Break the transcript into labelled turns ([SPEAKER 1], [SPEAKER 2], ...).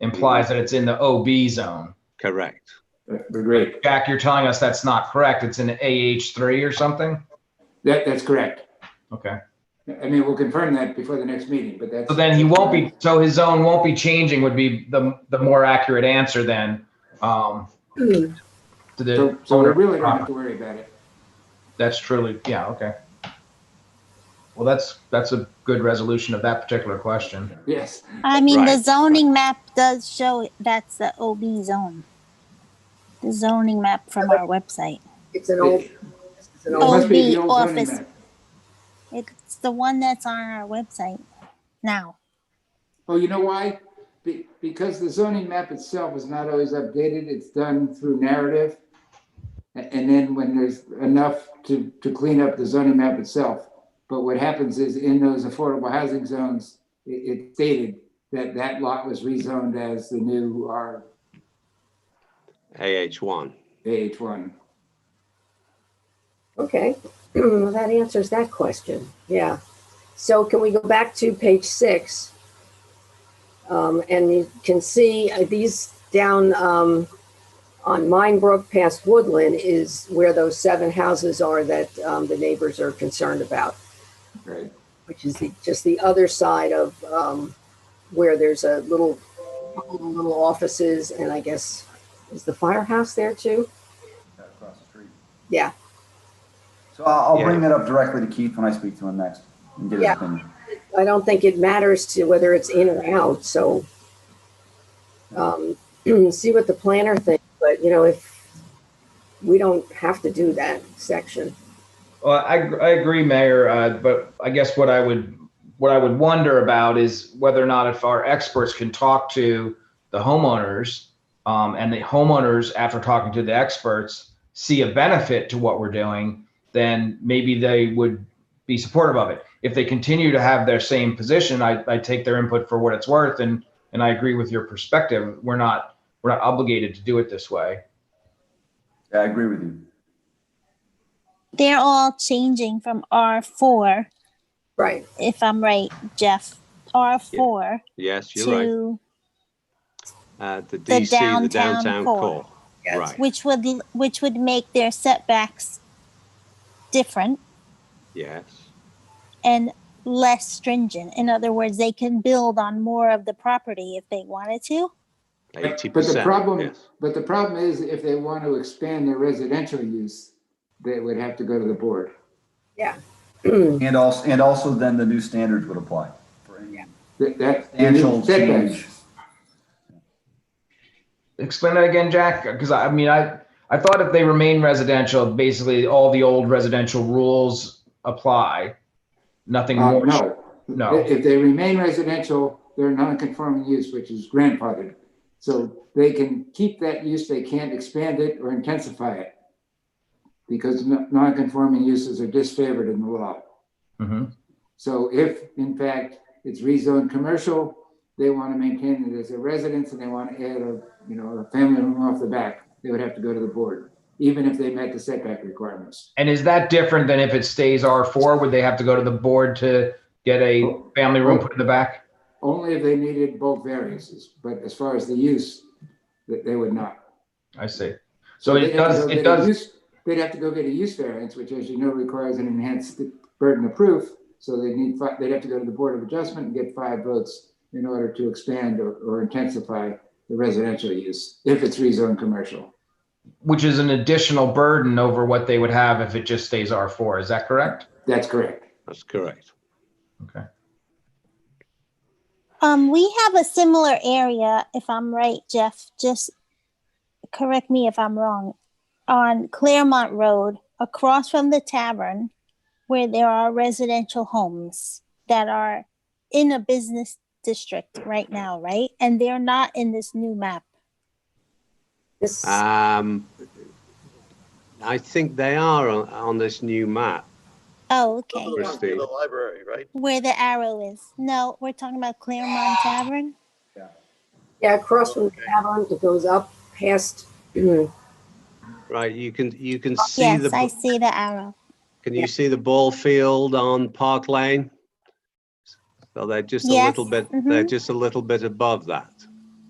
[SPEAKER 1] implies that it's in the OB zone.
[SPEAKER 2] Correct.
[SPEAKER 3] Great.
[SPEAKER 1] Jack, you're telling us that's not correct. It's in AH3 or something?
[SPEAKER 3] That, that's correct.
[SPEAKER 1] Okay.
[SPEAKER 3] I mean, we'll confirm that before the next meeting, but that's.
[SPEAKER 1] So then he won't be, so his zone won't be changing would be the, the more accurate answer then. um, To
[SPEAKER 3] So
[SPEAKER 1] the
[SPEAKER 3] so we
[SPEAKER 1] owner, Uh,
[SPEAKER 3] really don't have to worry about it.
[SPEAKER 1] that's truly, yeah, okay. Well, that's, that's a good resolution of that particular question.
[SPEAKER 3] Yes.
[SPEAKER 4] I mean, the
[SPEAKER 2] Right.
[SPEAKER 4] zoning map does show that's the OB zone. The zoning map from our website.
[SPEAKER 5] It's an old,
[SPEAKER 3] It
[SPEAKER 5] it's an
[SPEAKER 3] it
[SPEAKER 5] old,
[SPEAKER 3] must be the old zoning
[SPEAKER 4] office.
[SPEAKER 3] map.
[SPEAKER 4] It's the one that's on our website now.
[SPEAKER 3] Oh, you know why? Be, because the zoning map itself is not always updated. It's done through narrative. A- And then when there's enough to, to clean up the zoning map itself. But what happens is in those affordable housing zones, it, it stated that that lot was rezoned as the new R
[SPEAKER 2] AH1.
[SPEAKER 3] AH one.
[SPEAKER 5] okay. Well, that answers that question. Yeah. So can we go back to page six? Um, and you can see uh, these down, um, on Minebrook past Woodland is where those seven houses are that, um, the neighbors are concerned about.
[SPEAKER 3] Right.
[SPEAKER 5] which is the, just the other side of um, where there's a little little offices and I guess is the firehouse there too.
[SPEAKER 6] across the street.
[SPEAKER 5] Yeah.
[SPEAKER 6] So I'll, I'll
[SPEAKER 2] Yeah.
[SPEAKER 6] bring that up directly to Keith when I speak to him next and get his
[SPEAKER 5] Yeah.
[SPEAKER 6] opinion.
[SPEAKER 5] I don't think it matters to whether it's in or out. So um, see what the planner thinks. But you know, if we don't have to do that section,
[SPEAKER 1] Well, I, I agree, Mayor, uh, but I guess what I would, what I would wonder about is whether or not if our experts can talk to the homeowners, um, and the homeowners, after talking to the experts, see a benefit to what we're doing, then maybe they would be supportive of it. If they continue to have their same position, I, I take their input for what it's worth, and, and I agree with your perspective. We're not, we're not obligated to do it this way.
[SPEAKER 6] Yeah, I agree with you.
[SPEAKER 4] They're all changing from R4,
[SPEAKER 5] right?
[SPEAKER 4] if I'm right, Jeff, R4
[SPEAKER 2] Yes, you're right.
[SPEAKER 4] to,
[SPEAKER 2] Uh, the DC, the
[SPEAKER 4] downtown
[SPEAKER 2] downtown
[SPEAKER 4] core.
[SPEAKER 2] core. Right,
[SPEAKER 4] which would, which would make their setbacks different
[SPEAKER 2] yes.
[SPEAKER 4] and less stringent. In other words, they can build on more of the property if they wanted to.
[SPEAKER 3] But-
[SPEAKER 2] 80%.
[SPEAKER 3] But the problem,
[SPEAKER 2] yes.
[SPEAKER 3] but the problem is if they want to expand their residential use, they would have to go to the board.
[SPEAKER 6] And also, and also then the new standards would apply. for any
[SPEAKER 3] That, that. they need
[SPEAKER 6] Substantial
[SPEAKER 3] setbacks.
[SPEAKER 6] change.
[SPEAKER 1] explain that again, Jack? Because I, I mean, I I thought if they remain residential, basically all the old residential rules apply. Nothing
[SPEAKER 3] Uh,
[SPEAKER 1] more.
[SPEAKER 3] no.
[SPEAKER 1] No.
[SPEAKER 3] If they remain residential, they're non-conforming use, which is grandfathered. So they can keep that use, they can't expand it or intensify it. Because no- non-conforming uses are disfavored in the law.
[SPEAKER 1] Mhm.
[SPEAKER 3] So if in fact it's rezoned commercial, they want to maintain it as a residence and they want to add a, you know, a family room off the back, they would have to go to the board, even if they met the setback requirements.
[SPEAKER 1] And is that different than if it stays R four? Would they have to go to the board to get a family room put in the back?
[SPEAKER 3] Only if they needed both variances, but as far as the use, that they would not.
[SPEAKER 1] I see. So
[SPEAKER 3] They'd
[SPEAKER 1] it
[SPEAKER 3] have to
[SPEAKER 1] does.
[SPEAKER 3] go
[SPEAKER 1] It
[SPEAKER 3] get a
[SPEAKER 1] does.
[SPEAKER 3] use- They'd have to go get a use variance, which as you know, requires an enhanced burden of proof. So they need, fi- they'd have to go to the Board of Adjustment and get five votes in order to expand or, or intensify the residential use, if it's rezoned commercial.
[SPEAKER 1] Which is an additional burden over what they would have if it just stays R four. Is that correct?
[SPEAKER 3] That's correct.
[SPEAKER 2] That's correct.
[SPEAKER 4] Um, we have a similar area, if I'm right, Jeff, just correct me if I'm wrong, on Claremont Road, across from the tavern, where there are residential homes that are in a business district right now, right? And they're not in this new map.
[SPEAKER 5] This
[SPEAKER 2] Um, I think they are on, on this new map.
[SPEAKER 4] Oh, okay.
[SPEAKER 2] Christine.
[SPEAKER 7] The library, right?
[SPEAKER 4] Where the arrow is. No, we're talking about Claremont Tavern.
[SPEAKER 5] yeah, across from the tavern, it goes up past.
[SPEAKER 2] Right, you can, you can see the,
[SPEAKER 4] Yes, I
[SPEAKER 2] b-
[SPEAKER 4] see the arrow.
[SPEAKER 2] can you see the ball field on Park Lane? So they're just a
[SPEAKER 4] Yes,
[SPEAKER 2] little bit, they're
[SPEAKER 4] mhm.
[SPEAKER 2] just a little bit above that.